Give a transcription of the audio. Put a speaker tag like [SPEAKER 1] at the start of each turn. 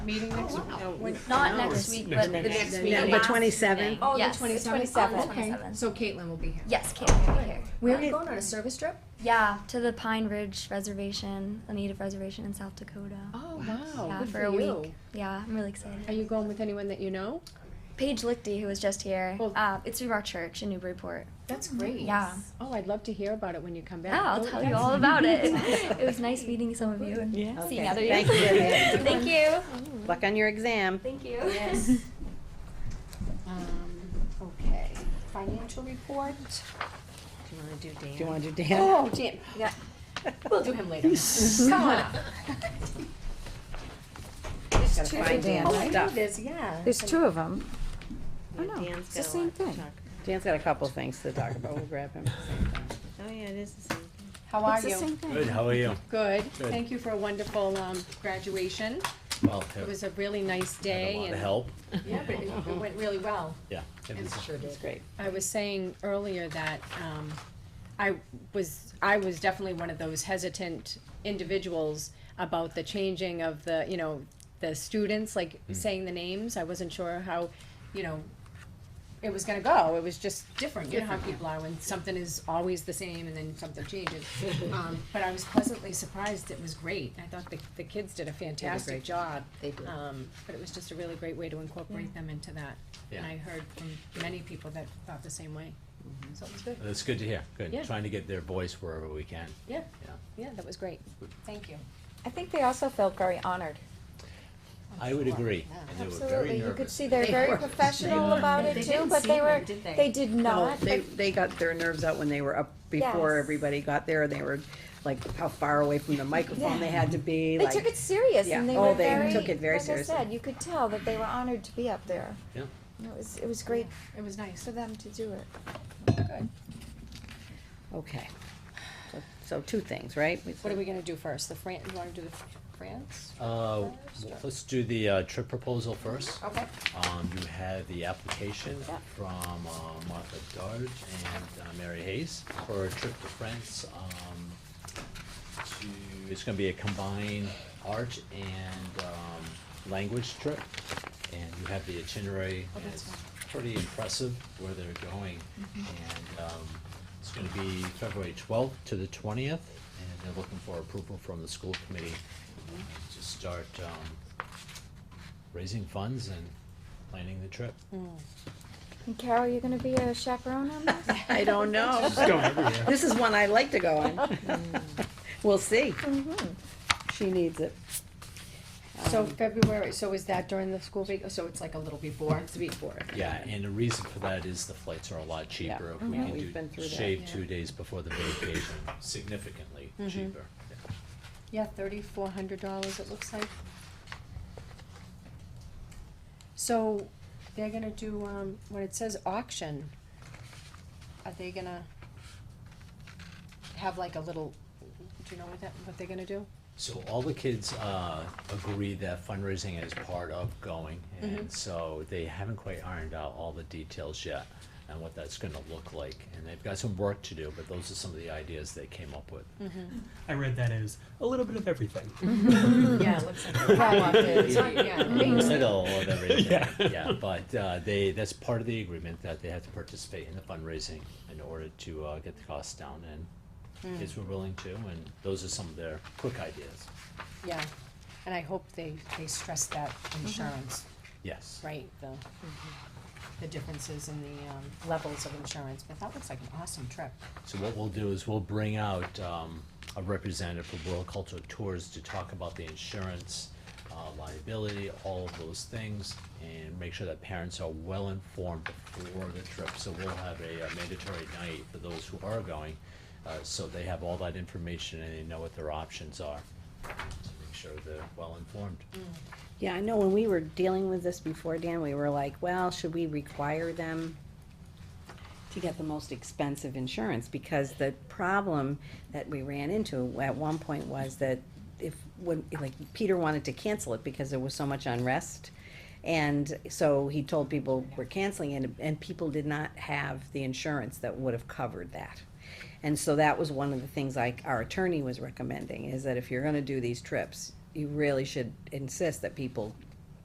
[SPEAKER 1] meeting next week? No,
[SPEAKER 2] Not
[SPEAKER 1] no,
[SPEAKER 2] next
[SPEAKER 1] it's-
[SPEAKER 2] week,
[SPEAKER 3] next
[SPEAKER 2] but the
[SPEAKER 3] week.
[SPEAKER 2] next
[SPEAKER 1] Next
[SPEAKER 2] week.
[SPEAKER 1] week.
[SPEAKER 4] Number twenty-seven.
[SPEAKER 2] Oh, the
[SPEAKER 5] Yes, the
[SPEAKER 2] 27th.
[SPEAKER 5] 27th.
[SPEAKER 2] Oh, okay.
[SPEAKER 1] So Caitlin will be here.
[SPEAKER 2] Yes, Caitlin will be here.
[SPEAKER 5] Where are
[SPEAKER 4] Okay.
[SPEAKER 5] you going on a service trip?
[SPEAKER 2] Yeah, to the Pine Ridge Reservation, a native reservation in South Dakota.
[SPEAKER 1] Oh, wow,
[SPEAKER 2] yeah,
[SPEAKER 1] good
[SPEAKER 2] for,
[SPEAKER 1] for
[SPEAKER 2] a
[SPEAKER 1] you.
[SPEAKER 2] week. Yeah, I'm really excited.
[SPEAKER 1] Are you going with anyone that you know?
[SPEAKER 2] Paige Lichty, who was just here,
[SPEAKER 1] Oh.
[SPEAKER 2] uh, it's from our church in Newburyport.
[SPEAKER 5] That's great.
[SPEAKER 2] Yeah.
[SPEAKER 1] Oh, I'd love to hear about it when you come
[SPEAKER 2] Yeah,
[SPEAKER 1] back. Oh,
[SPEAKER 2] I'll tell you all about it. it was nice meeting some of you and seeing
[SPEAKER 4] Okay,
[SPEAKER 2] other you.
[SPEAKER 4] thank you, Vivian.
[SPEAKER 2] Thank you.
[SPEAKER 4] Good Luck on your exam.
[SPEAKER 2] Thank you.
[SPEAKER 1] Um,
[SPEAKER 5] Okay. Financial report.
[SPEAKER 4] Do you wanna do Dan? Do you wanna do Dan?
[SPEAKER 5] Oh, Jim. Yeah. We'll do him later. Come on up. There's two
[SPEAKER 4] find
[SPEAKER 5] of them.
[SPEAKER 4] Dan's
[SPEAKER 5] I knew
[SPEAKER 4] stuff.
[SPEAKER 5] There's, yeah.
[SPEAKER 6] There's two of them.
[SPEAKER 4] Yeah,
[SPEAKER 6] no,
[SPEAKER 4] Dan's
[SPEAKER 6] it's the
[SPEAKER 4] got a
[SPEAKER 6] same
[SPEAKER 4] lot to
[SPEAKER 6] thing.
[SPEAKER 4] talk- Dan's got a couple things to talk about, we'll grab him. Oh, yeah, it is the same.
[SPEAKER 1] How are
[SPEAKER 6] It's the
[SPEAKER 1] you?
[SPEAKER 6] same thing.
[SPEAKER 3] Good, how are you?
[SPEAKER 1] Good.
[SPEAKER 3] Good.
[SPEAKER 1] Thank you for a wonderful um, graduation.
[SPEAKER 3] Well,
[SPEAKER 1] It
[SPEAKER 3] had
[SPEAKER 1] was a really nice
[SPEAKER 3] a
[SPEAKER 1] day.
[SPEAKER 3] lot of
[SPEAKER 1] and-
[SPEAKER 3] help,
[SPEAKER 1] Yeah, but it it went really well.
[SPEAKER 3] yeah. it was-
[SPEAKER 4] It's great.
[SPEAKER 1] I was saying earlier that um, I was, I was definitely one of those hesitant individuals about the changing of the, you know, the students, like saying the names. I wasn't sure how, you know, it was gonna go. It was just different. You know how people are when something is always the same and then something changes. Um, But I was pleasantly surprised. It was great. I thought the, the kids did a fantastic
[SPEAKER 4] great
[SPEAKER 1] job.
[SPEAKER 4] They did.
[SPEAKER 1] Um, but it was just a really great way to incorporate them into that. And
[SPEAKER 3] Yeah.
[SPEAKER 1] I heard from many people that thought the same way. So it was good.
[SPEAKER 3] It's good to hear,
[SPEAKER 1] Yeah. Oh,
[SPEAKER 3] good, trying to get their voice wherever we can,
[SPEAKER 1] Yeah,
[SPEAKER 3] yeah.
[SPEAKER 1] yeah, that was great. Thank you.
[SPEAKER 6] I think they also felt very honored.
[SPEAKER 3] I would agree, and they were very
[SPEAKER 6] Absolutely. You could
[SPEAKER 3] nervous.
[SPEAKER 6] see they're very professional about it too, but they were, they did
[SPEAKER 4] No,
[SPEAKER 6] not.
[SPEAKER 4] Oh, they, they got their nerves out when they were up before
[SPEAKER 6] Yes.
[SPEAKER 4] everybody got there, they were like, how far away from the microphone they had to be,
[SPEAKER 6] They
[SPEAKER 4] like.
[SPEAKER 6] took it serious and
[SPEAKER 4] Yeah.
[SPEAKER 6] they
[SPEAKER 4] Oh,
[SPEAKER 6] were
[SPEAKER 4] they
[SPEAKER 6] very,
[SPEAKER 4] took it very
[SPEAKER 6] like I
[SPEAKER 4] seriously.
[SPEAKER 6] said, you could tell that they were honored to be up there.
[SPEAKER 3] Yeah.
[SPEAKER 6] And It was, it was great
[SPEAKER 1] It was nice.
[SPEAKER 6] for them to do it.
[SPEAKER 1] Good.
[SPEAKER 4] Okay. So- So two things, right?
[SPEAKER 1] What are we gonna do first? The Fran, you wanna do the France?
[SPEAKER 3] Uh, well, let's do the, uh, trip proposal first.
[SPEAKER 1] Okay.
[SPEAKER 3] Um, you have the application from uh, Martha Darge and uh, Mary Hayes for a trip to France. um, to- It's gonna be a combined art and um, language trip, and you have the itinerary. and
[SPEAKER 1] that's
[SPEAKER 3] It's pretty impressive where they're going. And um, it's gonna be February twelfth to the twentieth, and they're looking for approval from the school committee to start um, raising funds and planning the trip.
[SPEAKER 6] And Carol, you're gonna be a chaperone on this?
[SPEAKER 4] I don't know. This is one I like to go on. We'll see.
[SPEAKER 6] Mm-hmm.
[SPEAKER 4] She needs it. Um,
[SPEAKER 1] So February, so is that during the school week? So it's like a little before? It's before.
[SPEAKER 3] Yeah, and the reason for that is the flights are a lot cheaper if we
[SPEAKER 4] Yeah, Mm-hmm. Mm-hmm. we've
[SPEAKER 3] can
[SPEAKER 4] been
[SPEAKER 3] do
[SPEAKER 4] through that.
[SPEAKER 3] shave
[SPEAKER 1] Yeah.
[SPEAKER 3] two days before the vacation, significantly cheaper.
[SPEAKER 1] Yeah, thirty-four hundred dollars it looks like. So they're gonna do, um, when it says auction, are they gonna have like a little, do you know what that, what they're gonna do?
[SPEAKER 3] So all the kids uh, agree that fundraising is part of going,
[SPEAKER 4] Mm-hmm.
[SPEAKER 3] and so they haven't quite ironed out all the details yet and what that's gonna look like. And they've got some work to do, but those are some of the ideas they came up with.
[SPEAKER 4] Mm-hmm.
[SPEAKER 7] I read that as a little bit of everything.
[SPEAKER 1] Yeah, it looks like.
[SPEAKER 3] Mm-hmm.
[SPEAKER 1] Yeah.
[SPEAKER 3] middle of everything, yeah, but, uh, they, that's part of the agreement, that they have to participate in the fundraising in order to, uh, get the costs down, and kids were willing to, and those are some of their quick ideas,
[SPEAKER 1] Yeah, and I hope they, they stress that insurance,
[SPEAKER 3] yes.
[SPEAKER 1] right, the, the differences in the, um, levels of insurance, but that looks like an awesome trip.
[SPEAKER 3] So what we'll do is we'll bring out, um, a representative for World Cultural Tours to talk about the insurance, uh, liability, all of those things, and make sure that parents are well informed before the trip, so we'll have a uh, mandatory night for those who are going, uh, so they have all that information and they know what their options are, to make sure they're well informed.
[SPEAKER 4] Yeah, I know when we were dealing with this before, Dan, we were like, well, should we require them to get the most expensive insurance? Because the problem that we ran into at one point was that if, when, like, Peter wanted to cancel it because there was so much unrest. And so he told people we're canceling it, and people did not have the insurance that would have covered that. And so that was one of the things like our attorney was recommending, is that if you're gonna do these trips, you really should insist that people